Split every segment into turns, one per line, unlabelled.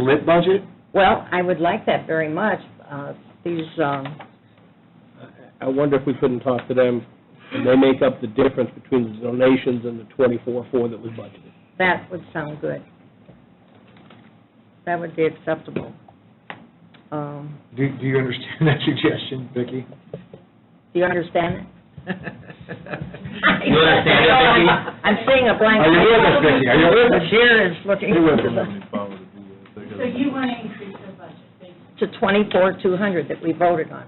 lit budget?
Well, I would like that very much. Uh, These, um,
I wonder if we couldn't talk to them, and they make up the difference between the donations and the twenty-four four that was budgeted.
that would sound good. That would be acceptable. Um,
Do, do you understand that suggestion, Vicki?
Do you understand it?
You understand it, Vicki?
I'm seeing a blank.
Are you with us, Vicki? Are you with us?
The chair is looking.
You're with us.
So you want to increase their budget, basically?
To twenty-four, two hundred that we voted on.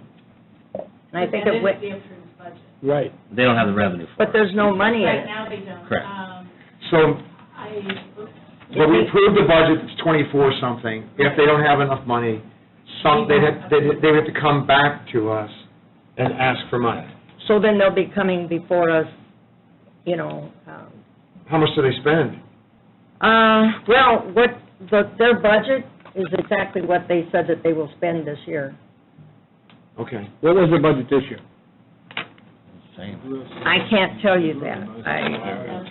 And I think it
That
would,
is the approved budget.
Right.
They don't have the revenue for it.
but there's no money in
Right
it.
now, they don't.
Correct.
Um,
So,
I, oops,
but we approved the budget, it's twenty-four something, if they don't have enough money, some, they'd have, they'd, they'd have to come back to us and ask for money.
So then they'll be coming before us, you know, um,
How much do they spend?
Uh, well, what, the, their budget is exactly what they said that they will spend this year.
Okay.
What was their budget this year?
Same.
I can't tell you that. I,
Um,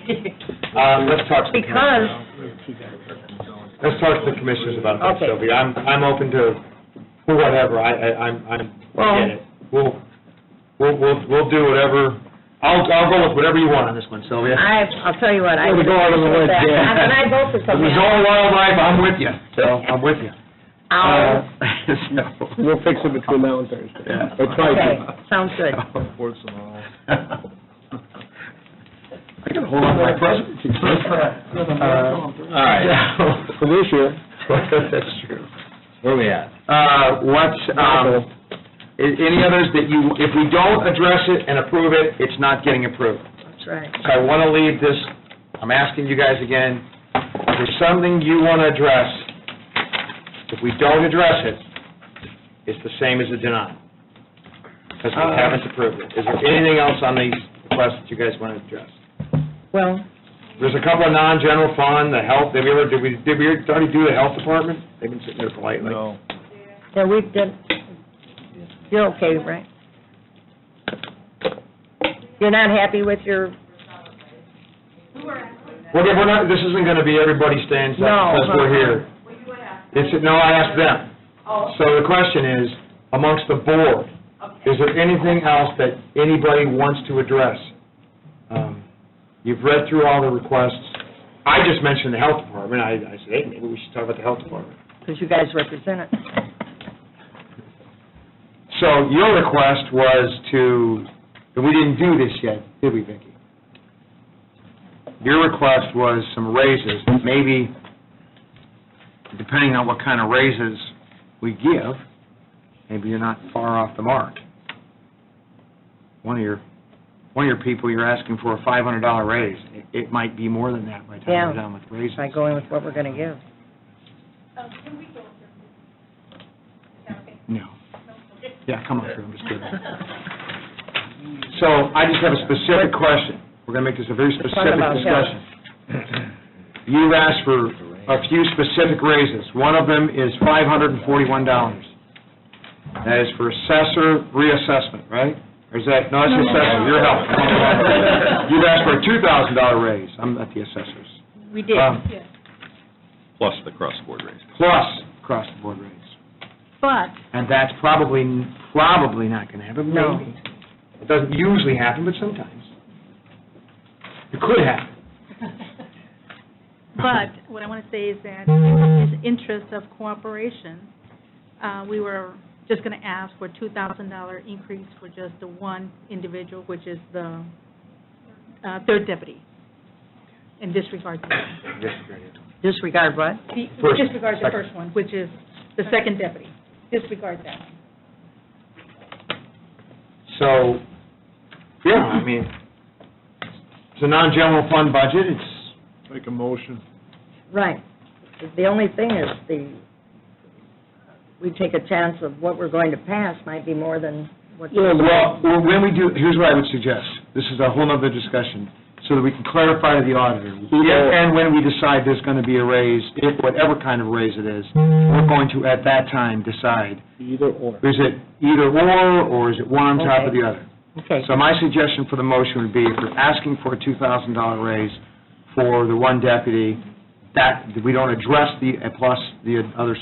Uh, let's talk to the
because,
commissioners. Let's talk to the commissioners about that,
Okay.
Sylvia. I'm, I'm open to whatever, I, I, I'm, I'm, I get it. We'll, we'll, we'll, we'll do whatever, I'll, I'll go with whatever you want on this one, Sylvia.
I, I'll tell you what, I.
Well,
would
go out on the
appreciate
ledge,
that.
yeah.
And I vote for
If
something.
it's all wildlife, I'm with you, so, I'm with you.
I'll-
Uh, so-
We'll fix it between now and Thursday.
Yeah.
Or try
Okay,
to.
sounds good.
I can hold on to my presidency.
All right,
For this year,
That's true.
where are we at?
Uh, what's, um, i- any others that you, if we don't address it and approve it, it's not getting approved.
That's right.
So I want to leave this, I'm asking you guys again, if there's something you want to address, if we don't address it, it's the same as a deny, because we haven't approved it. Is there anything else on these requests that you guys want to address?
Well,
There's a couple of non-general fund, the health, did we ever, did we, did we already do the health department? They've been sitting there politely.
yeah, we did, you're okay, right? You're not happy with your,
Well, we're not, this isn't going to be everybody stands up
No.
because we're here. It's, no, I asked them. So the question is, amongst the board, is there anything else that anybody wants to address? Um, You've read through all the requests. I just mentioned the health department. I, I said, hey, maybe we should talk about the health department.
because you guys represent it.
So your request was to, and we didn't do this yet, did we, Vicki? Your request was some raises, maybe, depending on what kind of raises we give, maybe you're not far off the mark. One of your, one of your people, you're asking for a five hundred dollar raise. It, it might be more than that by the time
Yeah.
we're done with raises.
By going with what we're going to give.
um, can we go through? Is that okay?
No. Yeah, come on through, I'm just kidding.
Okay.
So I just have a specific question. We're going to make this a very specific
about health.
discussion. You've asked for a few specific raises. One of them is $541. That is for assessor reassessment, right? Or is that, no, that's the assessor, your help. You've asked for a $2,000 raise. I'm at the assessors.
We did.
Um,
plus the cross-board raise.
Plus across-the-board raise.
But
And that's probably, probably not going to happen,
No.
maybe. It doesn't usually happen, but sometimes. It could happen.
But what I want to say is that in the interest of cooperation, uh, we were just going to ask for $2,000 increase for just the one individual, which is the uh, third deputy, in disregard to
disregard what?
the-
First,
disregard the
second.
first one, which is the second deputy. Disregard that.
So, yeah, I mean, it's a non-general fund budget, it's,
Make a motion.
Right. The only thing is the, we take a chance of what we're going to pass might be more than what.
well, well, when we do, here's what I would suggest, this is a whole nother discussion, so that we can clarify to the auditor, if and when we decide there's gonna be a raise, if whatever kind of raise it is, we're going to, at that time, decide,
either or.
is it either or, or is it one on top of the other?
Okay.
So my suggestion for the motion would be, if you're asking for a $2,000 raise for the one deputy, that, we don't address the, plus the other